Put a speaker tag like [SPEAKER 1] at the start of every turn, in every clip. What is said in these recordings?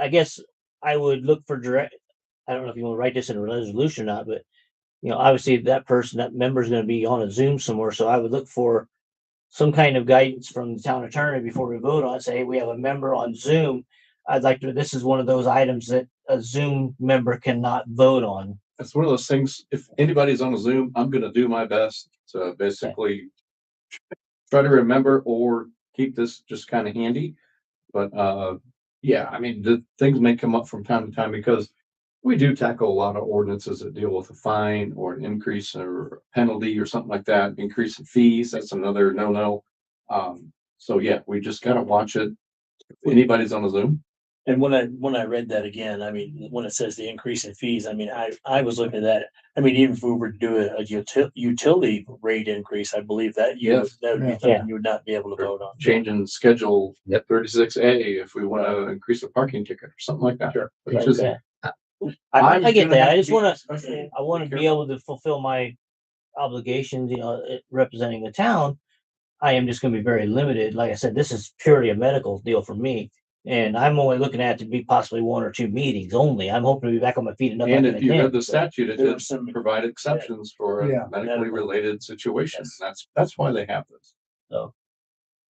[SPEAKER 1] I guess I would look for direct, I don't know if you want to write this in a resolution or not, but you know, obviously that person, that member is going to be on a Zoom somewhere. So I would look for some kind of guidance from the town attorney before we vote on, it. say, hey, we have a member on Zoom. I'd like to, this is one of those items that a Zoom member cannot vote on.
[SPEAKER 2] It's one of those things, if anybody's on a Zoom, I'm gonna do my best to basically try to remember or keep this just kind of handy. But, uh, yeah, I mean, the things may come up from time to time because we do tackle a lot of ordinances that deal with a fine or an increase or penalty or something like that, increase in fees, that's another no-no. Um, so yeah, we just gotta watch it. If anybody's on a Zoom,
[SPEAKER 3] And when I, when I read that again, I mean, when it says the increase in fees, I mean, I, I was looking at that. I mean, even if we were to do a, a util- utility rate increase, I believe that, you
[SPEAKER 2] Yes.
[SPEAKER 3] that would be something you would not be able to vote on.
[SPEAKER 2] changing schedule
[SPEAKER 4] Yep.
[SPEAKER 2] thirty-six A if we want to increase the parking ticket or something like that. Sure.
[SPEAKER 1] Right, yeah. I, I get that. I just want to,
[SPEAKER 2] to.
[SPEAKER 1] I want to be able to fulfill my obligations, you know, eh, representing the town. I am just going to be very limited. Like I said, this is purely a medical deal for me. And I'm only looking at to be possibly one or two meetings only. I'm hoping to be back on my feet in
[SPEAKER 2] And
[SPEAKER 1] another.
[SPEAKER 2] if you read the statute, it
[SPEAKER 3] There were
[SPEAKER 2] does
[SPEAKER 3] some,
[SPEAKER 2] provide exceptions for
[SPEAKER 5] Yeah.
[SPEAKER 2] medically related situations. That's, that's why they have this.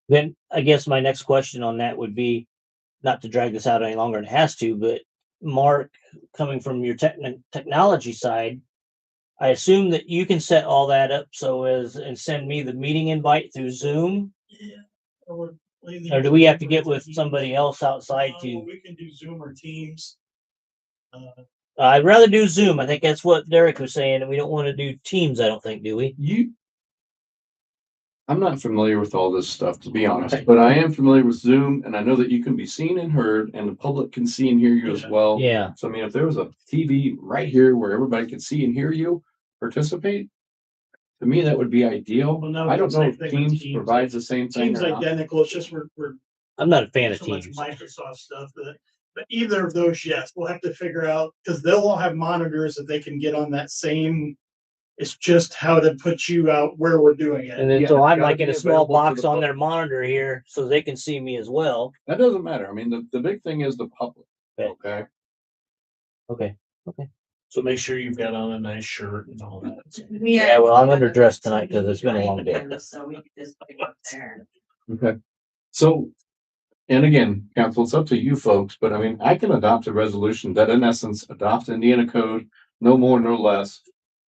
[SPEAKER 1] Then I guess my next question on that would be, not to drag this out any longer than it has to, but Mark, coming from your techni- technology side, I assume that you can set all that up so as, and send me the meeting invite through Zoom? Or do we have to get with somebody else outside to,
[SPEAKER 6] We can do Zoom or Teams. Uh,
[SPEAKER 1] I'd rather do Zoom. I think that's what Derek was saying, and we don't want to do Teams, I don't think, do we?
[SPEAKER 2] You. I'm not familiar with all this stuff, to be honest, but I am familiar with Zoom and I know that you can be seen and heard and the public can see and hear you as
[SPEAKER 6] Yeah.
[SPEAKER 2] well.
[SPEAKER 1] Yeah,
[SPEAKER 2] So I mean, if there was a TV right here where everybody could see and hear you participate, to me, that would be ideal.
[SPEAKER 6] Well, no,
[SPEAKER 2] I don't know
[SPEAKER 6] same
[SPEAKER 2] if
[SPEAKER 6] thing with
[SPEAKER 2] Teams
[SPEAKER 6] Teams.
[SPEAKER 2] provides the same thing
[SPEAKER 6] Teams
[SPEAKER 2] or not.
[SPEAKER 6] identical, it's just we're, we're
[SPEAKER 1] I'm not a fan of
[SPEAKER 6] so much
[SPEAKER 1] Teams.
[SPEAKER 6] Microsoft stuff, but, but either of those, yes, we'll have to figure out, because they'll all have monitors that they can get on that same. It's just how to put you out where we're doing it.
[SPEAKER 1] And then,
[SPEAKER 2] Yeah,
[SPEAKER 1] so
[SPEAKER 2] it's
[SPEAKER 1] I'm
[SPEAKER 2] gotta
[SPEAKER 1] like in
[SPEAKER 2] be
[SPEAKER 1] a small
[SPEAKER 2] available to
[SPEAKER 1] box
[SPEAKER 2] the
[SPEAKER 1] on their monitor here, so they can see me as well.
[SPEAKER 2] That doesn't matter. I mean, the, the big thing is the public.
[SPEAKER 1] Right.
[SPEAKER 2] Okay,
[SPEAKER 1] Okay.
[SPEAKER 3] so make sure you've got on a nice shirt and all that.
[SPEAKER 1] Yeah, well, I'm underdressed tonight 'cause it's been a long day.
[SPEAKER 7] So we could just put it up there.
[SPEAKER 2] okay. So, and again, council, it's up to you folks, but I mean, I can adopt a resolution that in essence adopts Indiana code, no more, no less.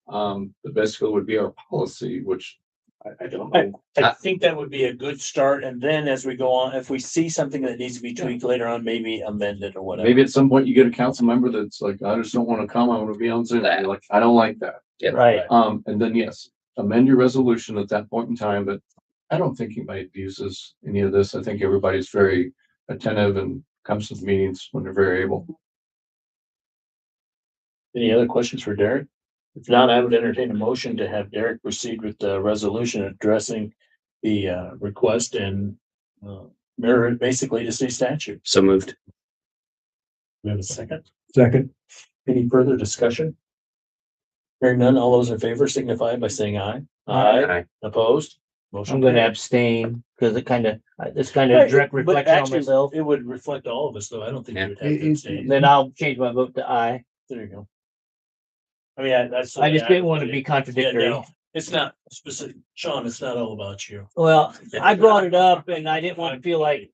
[SPEAKER 2] Um, the basically would be our policy, which I, I don't know.
[SPEAKER 3] I think that would be a good start. And then as we go on, if we see something that needs to be tweaked later on, maybe amend it or whatever.
[SPEAKER 2] Maybe at some point you get a council member that's like, I just don't want to come. I want to be on Zoom. You're like, I don't like that.
[SPEAKER 1] Right.
[SPEAKER 2] Um, and then yes, amend your resolution at that point in time, but I don't think anybody abuses any of this. I think everybody's very attentive and comes to the meetings when they're very able.
[SPEAKER 3] Any other questions for Derek? If not, I would entertain a motion to have Derek proceed with the resolution addressing the uh, request and uh, mirror it basically to state statute.
[SPEAKER 4] So moved.
[SPEAKER 3] We have a second.
[SPEAKER 5] Second.
[SPEAKER 3] Any further discussion? Hearing none, all those in favor signify by saying aye.
[SPEAKER 4] Aye.
[SPEAKER 3] Opposed?
[SPEAKER 1] I'm
[SPEAKER 3] Motion
[SPEAKER 1] gonna
[SPEAKER 3] carried.
[SPEAKER 1] abstain because it kind of, it's kind of a direct
[SPEAKER 3] But
[SPEAKER 1] reflection on
[SPEAKER 3] actually,
[SPEAKER 1] myself.
[SPEAKER 3] It would reflect all of us, though. I don't think you would have
[SPEAKER 5] Yeah.
[SPEAKER 3] to abstain.
[SPEAKER 1] Then I'll change my vote to aye.
[SPEAKER 3] There you go. I mean, I- that's. the
[SPEAKER 1] I
[SPEAKER 3] way
[SPEAKER 1] just didn't want to
[SPEAKER 3] put it.
[SPEAKER 1] be
[SPEAKER 3] Yeah,
[SPEAKER 1] contradictory.
[SPEAKER 3] no, it's not specific. Sean, it's not all about you.
[SPEAKER 1] Well, I brought it up and I didn't want to feel like,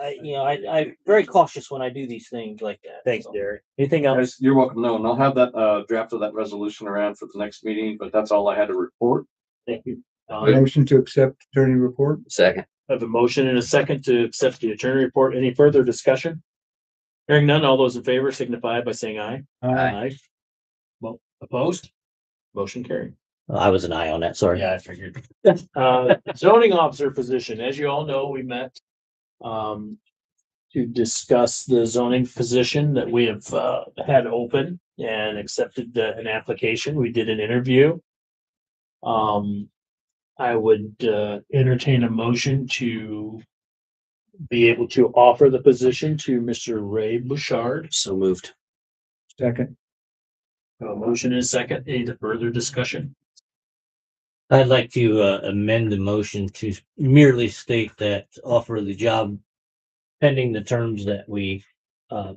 [SPEAKER 1] I, you know, I, I'm very cautious when I do these things like that.
[SPEAKER 3] Thanks,
[SPEAKER 1] so.
[SPEAKER 3] Derek. Anything else?
[SPEAKER 2] Guys, You're welcome. No, and I'll have that, uh, draft of that resolution around for the next meeting, but that's all I had to report.
[SPEAKER 3] Thank you. Don.
[SPEAKER 5] Motion to accept attorney report.
[SPEAKER 4] Second.
[SPEAKER 3] I Have a motion and a second to accept the attorney report. Any further discussion? Hearing none, all those in favor signify by saying aye.
[SPEAKER 4] Aye.
[SPEAKER 3] Well, opposed? Motion carried.
[SPEAKER 1] I was an eye on that, sorry.
[SPEAKER 3] Yeah, I figured. Uh, zoning officer position, as you all know, we met um to discuss the zoning position that we have uh had open and accepted the- an application. We did an interview. Um, I would uh entertain a motion to be able to offer the position to Mr. Ray Bouchard.
[SPEAKER 4] So moved.
[SPEAKER 5] Second.
[SPEAKER 3] A motion and a second. Any further discussion?
[SPEAKER 1] I'd like to uh, amend the motion to merely state that offer the job pending the terms that we uh,